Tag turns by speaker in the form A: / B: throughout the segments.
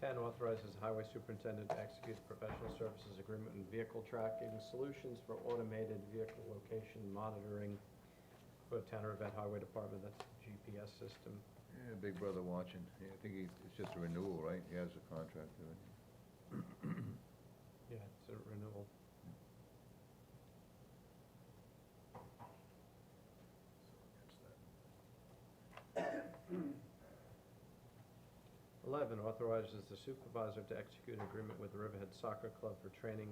A: ten authorizes highway superintendent to execute a professional services agreement and vehicle tracking solutions for automated vehicle location monitoring for town or event highway department, that's the GPS system.
B: Yeah, Big Brother watching. Yeah, I think he, it's just a renewal, right? He has a contract, doesn't he?
A: Yeah, it's a renewal. Eleven, authorizes the supervisor to execute an agreement with the Riverhead Soccer Club for training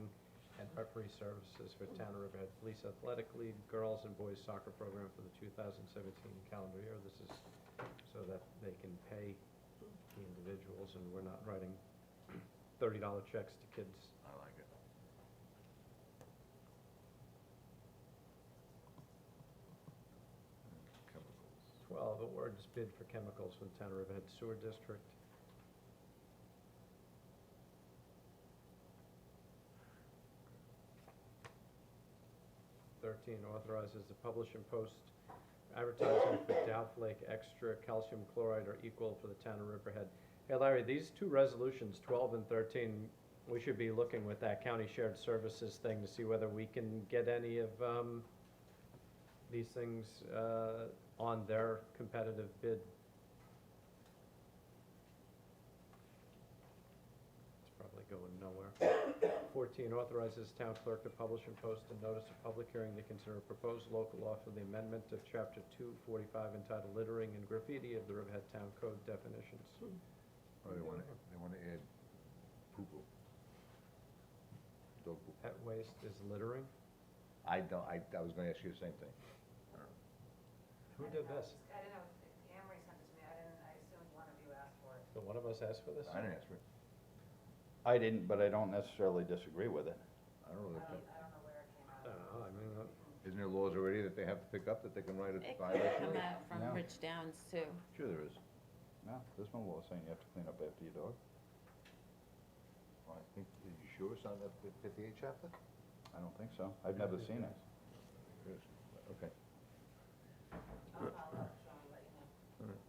A: and referee services for town of Riverhead Police Athletic League Girls and Boys Soccer Program for the two thousand seventeen calendar year. This is so that they can pay the individuals and we're not writing thirty dollar checks to kids
B: I like it. Chemicals.
A: 12, awards bid for chemicals for the Town of Riverhead Sewer District. Thirteen, authorizes the publish and post advertising for Dowflake Extra Calcium Chloride or Equal for the Town of Riverhead. Hey Larry, these two resolutions, 12 and 13, we should be looking with that county shared services thing to see whether we can get any of um, these things uh, on their competitive bid. It's probably going nowhere. Fourteen, authorizes town clerk to publish and post a notice of public hearing to consider a proposed local law for the amendment of chapter two forty-five entitled littering and graffiti of the Riverhead Town Code definitions.
B: Oh, they wanna, they wanna add poo-poo. Dog poo.
A: Pet waste is littering?
B: I don't, I, I was gonna ask you the same thing.
A: Who did this?
C: I don't know, Amory sent it to me, I didn't, I assumed one of you asked for it.
A: Did one of us ask for this?
B: I didn't ask for it.
D: I didn't, but I don't necessarily disagree with it.
B: I don't know,
C: I don't,
B: that-
C: I
E: Um,
C: don't know where it came
A: I
C: out.
A: don't know, I mean, uh,
B: isn't there laws already that they have to pick up that they can write
E: It
B: a
E: could
B: violation?
E: come out
D: No.
E: from Rich Downs too.
B: Sure there is.
D: No, there's no law saying you have to clean up after your dog.
B: Well, I think, are you sure it's on that fifty-eight chapter?
D: I don't think so. I've never seen it.
B: Yes. Okay.
C: I'll follow up, Sean, let you know.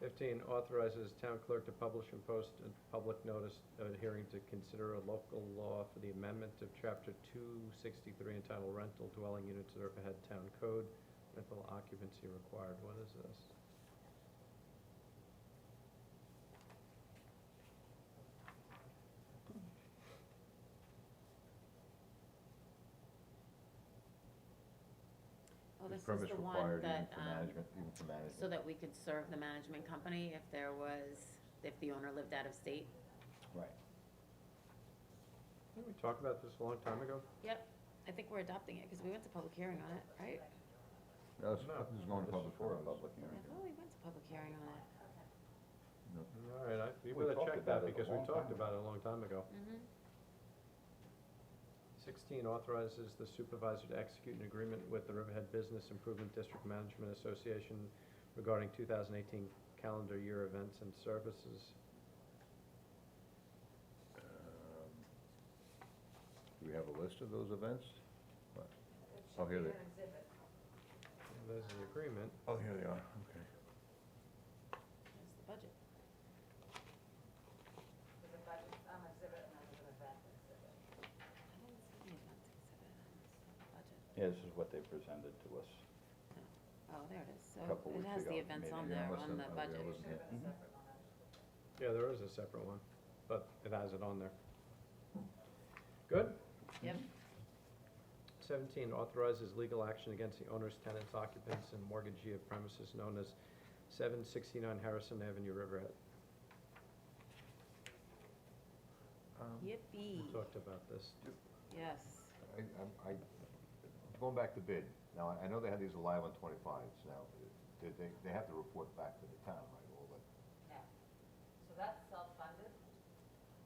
A: Fifteen, authorizes town clerk to publish and post a public notice of a hearing to consider a local law for the amendment of chapter two sixty-three entitled rental dwelling units of the Riverhead Town Code, rental occupancy required, what is this?
E: Well,
B: There's
E: Oh, this
B: permits
E: is the one
B: required even
E: that,
B: for
E: um,
B: management- Even for management.
E: so that we could serve the management company if there was, if the owner lived out of state.
D: Right.
A: Didn't we talk about this a long time ago?
E: Yep, I think we're adopting it because we went to public hearing on it, right?
B: No, it's,
A: No,
B: this is going to
A: this
B: public
A: is
D: For a
B: forum.
D: public
E: I
D: hearing.
E: thought Oh, we went to public hearing on it.
A: All right, I, we
D: We
A: would have
D: talked
A: checked
D: about
A: that
D: it a
A: because we
D: long
A: talked
D: time
A: about it a long time ago.
E: Mm-hmm.
A: Sixteen, authorizes the supervisor to execute an agreement with the Riverhead Business Improvement District Management Association regarding two thousand eighteen calendar year events and services.
B: Um, Do we have a list of those events? Oh,
C: It
B: I'll
C: should
B: hear
C: be
B: that.
C: an exhibit.
A: There's an agreement.
B: Oh, here they are, okay.
E: That's the budget.
C: There's a budget, um, exhibit, and then there's an event exhibit.
E: I didn't see the event exhibit on this budget.
D: Yeah, this is what they presented to us.
E: Oh, there it is. So
D: Couple
E: it
D: weeks
E: has the
D: ago,
E: events
D: maybe.
E: on
B: Yeah,
E: there,
B: must
E: on
B: have-
E: the
B: uh, yeah,
E: budget.
B: it was-
C: Should have been a
D: Mhm.
C: separate one, I should.
A: Yeah, there is a separate one, but it has it on there. Good?
E: Yep.
A: Seventeen, authorizes legal action against the owners, tenants, occupants, and mortgagee of premises known as seven sixty-nine Harrison Avenue, Riverhead.
E: Yippee,
B: Um,
E: E.
A: We talked about this.
E: yes.
B: I, I'm- I, going back to bid, now, I- I know they had these alive on twenty-fives, now, did they, they have to report back to the town, right, all that?
C: No. So that's self-funded?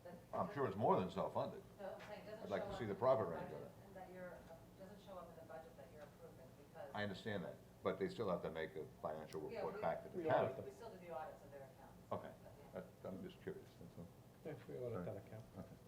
C: That-
B: I'm sure it's more than self-funded.
C: No, I'm saying, it doesn't
B: I'd
C: show
B: like
C: up.
B: to see
C: in
B: the profit range
C: budget
B: on it.
C: And that you're, uh, doesn't show up in the budget that you're approving, because.
B: I understand that, but they still have to make a financial
C: Yeah,
B: report
C: we-
B: back to the
A: Yeah.
B: town.
C: We we still do the audits of their accounts.
B: Okay,
C: but yeah.
B: That- I'm just curious, that's all.
A: Yeah, we ought to
B: Right.
A: that account.
B: Okay.
A: Um,